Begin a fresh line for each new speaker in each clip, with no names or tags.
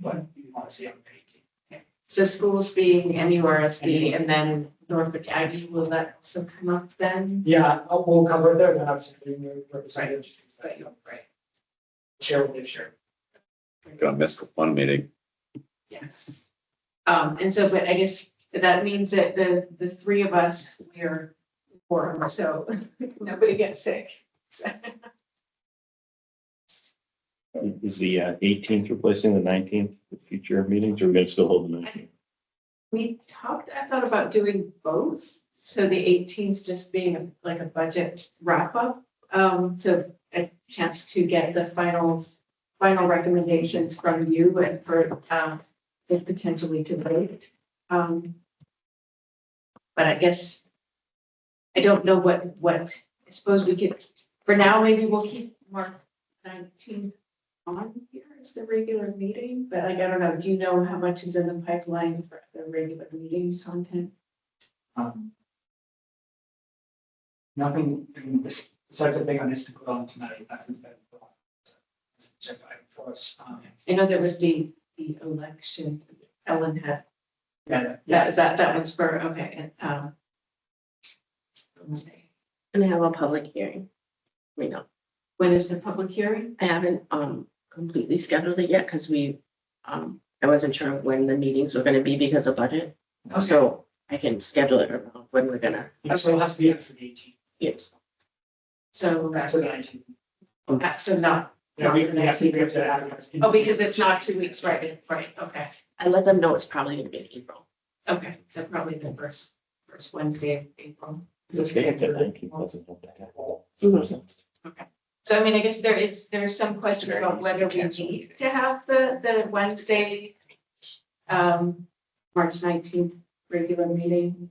what you want to see on the painting.
So schools being MURSD and then Norfolk Aggie, will that also come up then?
Yeah, I'll- we'll cover it there, then obviously we will represent it, just that, you know,
Right,
share with you, share.
Gonna miss the one meeting.
yes. Um, and so, but I guess that means that the, the three of us, we're four, so nobody gets sick.
Is the uh, eighteenth replacing the nineteenth with future meetings, or are we gonna still hold the nineteenth?
We talked, I thought about doing both, so the eighteenth just being a- like a budget wrap up. Um, so a chance to get the final, final recommendations from you and for, um, for potentially to vote. Um. But I guess. I don't know what, what, I suppose we could, for now, maybe we'll keep March nineteenth on here as the regular meeting, but like, I don't know, do you know how much is in the pipeline for the regular meetings content?
Um, Nothing, in this- besides the thing on this to put on tonight, nothing's been. put on. So, just Check by for us, um,
I know there was the, the election, Ellen had,
yeah, yeah,
that is that, that one's for, okay, and, um.
And I have a public hearing. We know,
When is the public hearing?
I haven't um completely scheduled it yet because we, um, I wasn't sure when the meetings were gonna be because of budget. So I can schedule it around when we're gonna,
so it'll have to be after the eighteen.
Yes.
So,
Back to the nineteen.
uh, so not,
Yeah, we we have to, we have to advertise.
oh, because it's not two weeks, right, right, okay,
I let them know it's probably gonna be in April.
okay, so probably the first, first Wednesday of April.
The nineteenth doesn't hold that out. So there's no-
So I mean, I guess there is, there's some question about whether we need to have the, the Wednesday, um, March nineteenth regular meeting.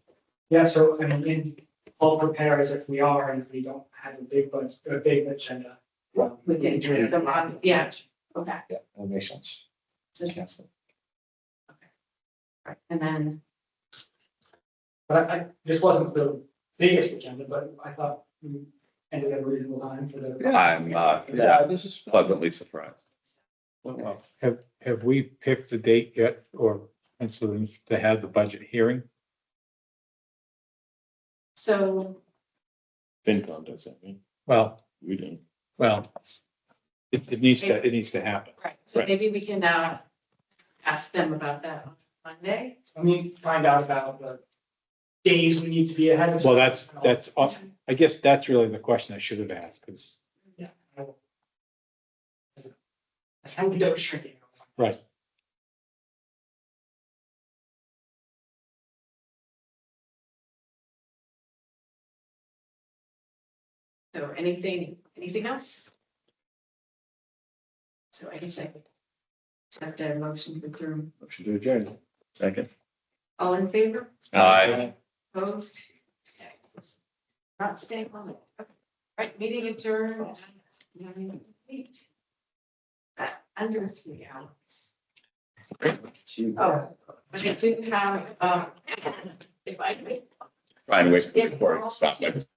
Yeah, so I mean, in, all prepare as if we are, and if we don't have a big budget, a big agenda. um,
We can
do it.
do them on- yeah. Okay.
Yeah, that makes sense.
So- And then,
But I, I- this wasn't the biggest agenda, but I thought we ended at a reasonable time for the.
I'm, uh, yeah,
this is.
pleasantly surprised.
Have, have we picked a date yet or penciled in to have the budget hearing?
so,
FinCon does that, right?
Well,
We didn't.
well, it, it needs to, it needs to happen.
right, so
Right.
maybe we can, uh, ask them about that on Monday.
Let me find out about the days we need to be ahead of.
Well, that's, that's, off- I guess that's really the question I should have asked, because,
Yeah. I will. That's how we don't shrink it.
right,
So anything, anything else? So I guess I could accept a motion to approve.
Motion to adjourn. Second.
All in favor?
Aye.
Opposed? Not staying on it. Okay. Right, meeting adjourned. at 9:08. Uh, Under three hours. Oh, but I do have, um, if I could
Ryan, wait, before I stop, I just